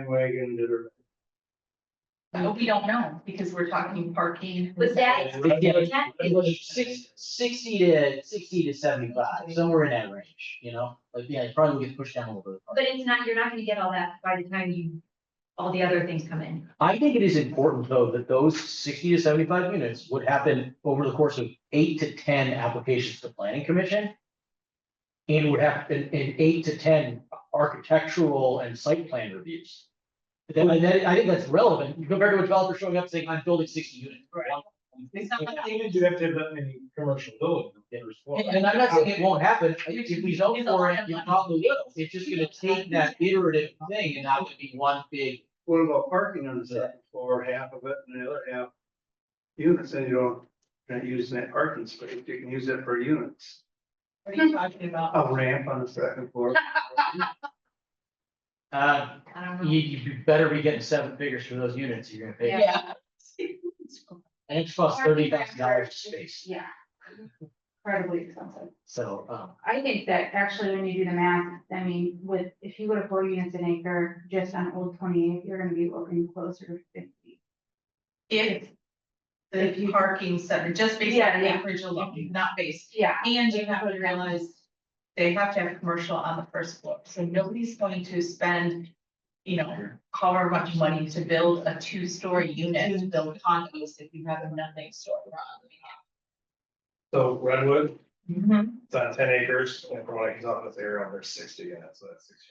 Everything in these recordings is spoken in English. bandwagon that are. But we don't know, because we're talking parking. Was that- Yeah, it was six, sixty to, sixty to seventy-five, somewhere in that range, you know, like, yeah, it probably gets pushed down a little bit. But it's not, you're not gonna get all that by the time you, all the other things come in. I think it is important, though, that those sixty to seventy-five units would happen over the course of eight to ten applications to planning commission. And would happen in eight to ten architectural and site plan reviews. Then, and then I think that's relevant compared to a developer showing up saying, I'm building sixty units. It's not like they- Even if you have to have that many commercial buildings. there as well. And and I'm not saying it won't happen, I think if we zone for it, it probably will, it's just gonna take that iterative thing and not gonna be one big. What about parking on the second floor, half of it and the other half? Units, and you don't, you're not using that parking space, you can use that for units, What are you talking about? a ramp on the second floor. Uh, I don't know. you, you better be getting seven figures for those units you're gonna pay, Yeah. and it's cost thirty thousand dollars a space, Yeah. Incredibly expensive. so, um, I think that actually when you do the math, I mean, with, if you go to four units an acre, just on Old Twenty Eight, you're gonna be looking closer to fifty. If the parking center, just based Yeah, on yeah. acreage alone, not based. Yeah. And you have to realize they have to have commercial on the first floor, so nobody's going to spend, you know, however much money to build a two-story unit, to build condos if you have nothing stored on. So Redwood, the Mm-hmm. top. it's on ten acres, and from what I can tell, it's area under sixty, yeah, so that's sixty.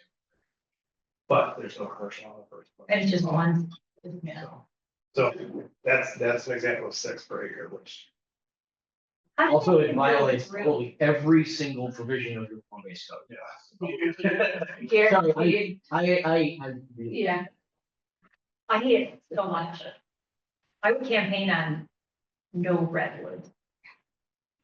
But there's no commercial on the first one. It's just one. Yeah. So that's, that's an example of six per acre, which also it violates totally every single provision of your form based code. Sorry, I, I, I, I really, Yeah. I hate it so much. I would campaign on no redwood.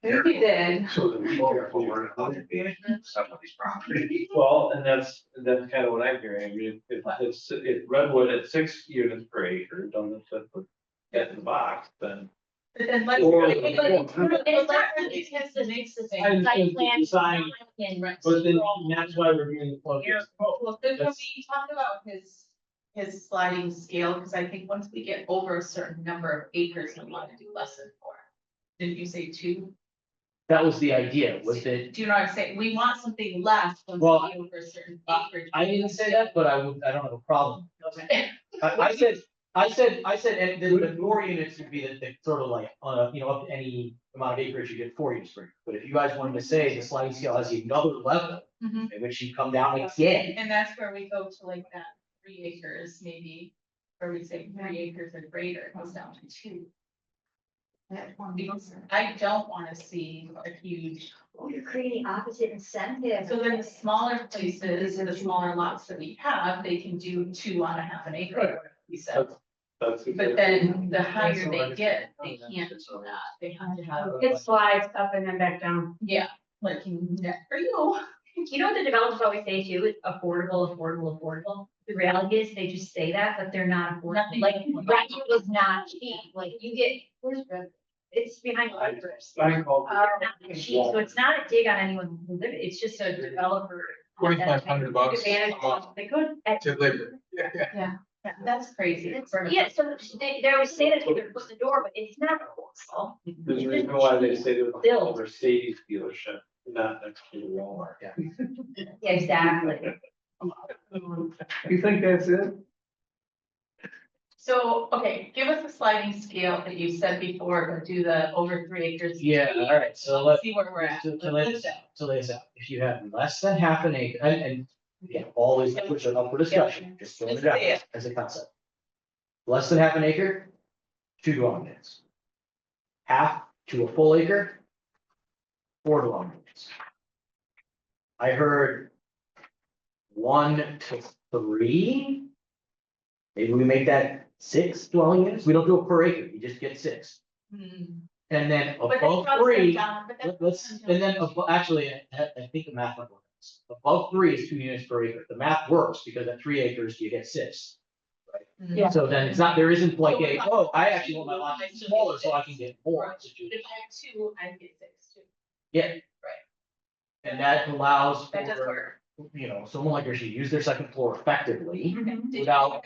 You did. So that we care for it. some of these properties. Well, and that's, that's kind of what I'm hearing, I mean, if, if, if Redwood at six units per acre, done the fifth, with- that's in the box, then. But then let's. Or- But it's not- It's not really it's not the next thing. I- And- Site and plan design, in red. But then that's why we're doing the plug. Well, then when That's- we talk about his, his sliding scale, because I think once we get over a certain number of acres, we want to do less than four. Didn't you say two? that was the idea, was that, Do you know what I'm saying? We want something less once Well, we get over a certain acreage. I didn't say that, but I would, I don't have a problem I, I said, I said, I said, and the, the more units would be the, the sort of like, uh, you know, up to any amount of acreage you get four units per. acre. But if you guys wanted to say the sliding scale has another level, Mhm. in which you come down again, And that's where we go to like that three acres maybe, or we say three acres or greater, it goes down to two. That one Because acre. I don't want to see a huge, Oh, You're creating opposite incentives. so then the smaller places, the smaller lots that we have, they can do two on a half an acre, or we said. That's. But then the higher they get, they can't do that, they have to have, It slides up and then back down. yeah, like, net for you. You know what the developers always say too, is affordable, affordable, affordable. The reality is, they just say that, but they're not affordable, Nothing. like, Redwood was not cheap, like, you get, where's Redwood? It's behind. Cypress. I call. Uh, not cheap, so it's not a dig on anyone who live, it, it's just a developer. Twenty-five hundred bucks a Advantage month They could, at- to live there. That's crazy. yeah, so they, they always say that they could close the door, but it's not affordable. There's a reason why they say they're a Mercedes dealership, not next to the Walmart. Yeah, Exactly. Mm-hmm. You think that's it? So, okay, give us a sliding scale that you said before, but do the over three acres. yeah, all right, so let. See where we're at. To, to Let's lay do this, that. to lay this out, if you have less than half an acre, and, and, yeah, always push it up for discussion, just throwing it out Yeah. as a concept. Less than half an acre, two dwelling units. Half to a full acre, four dwelling units. I heard one to three. Maybe we make that six dwelling units, we don't do it per acre, you just get six, Hmm. and then But that Mm-hmm. above drops them three. down, but that- Let- Let's, and then, abo- actually, I, I think the math might work. Above three is two units per acre. The math works because at three acres, you get six. Hmm. Yeah. So then it's not, there isn't like a, oh, I actually want my lot to be smaller so I can get more. But If I have two, I get six too. And that allows That does for work. you know, someone like her should use their second floor effectively Did you- without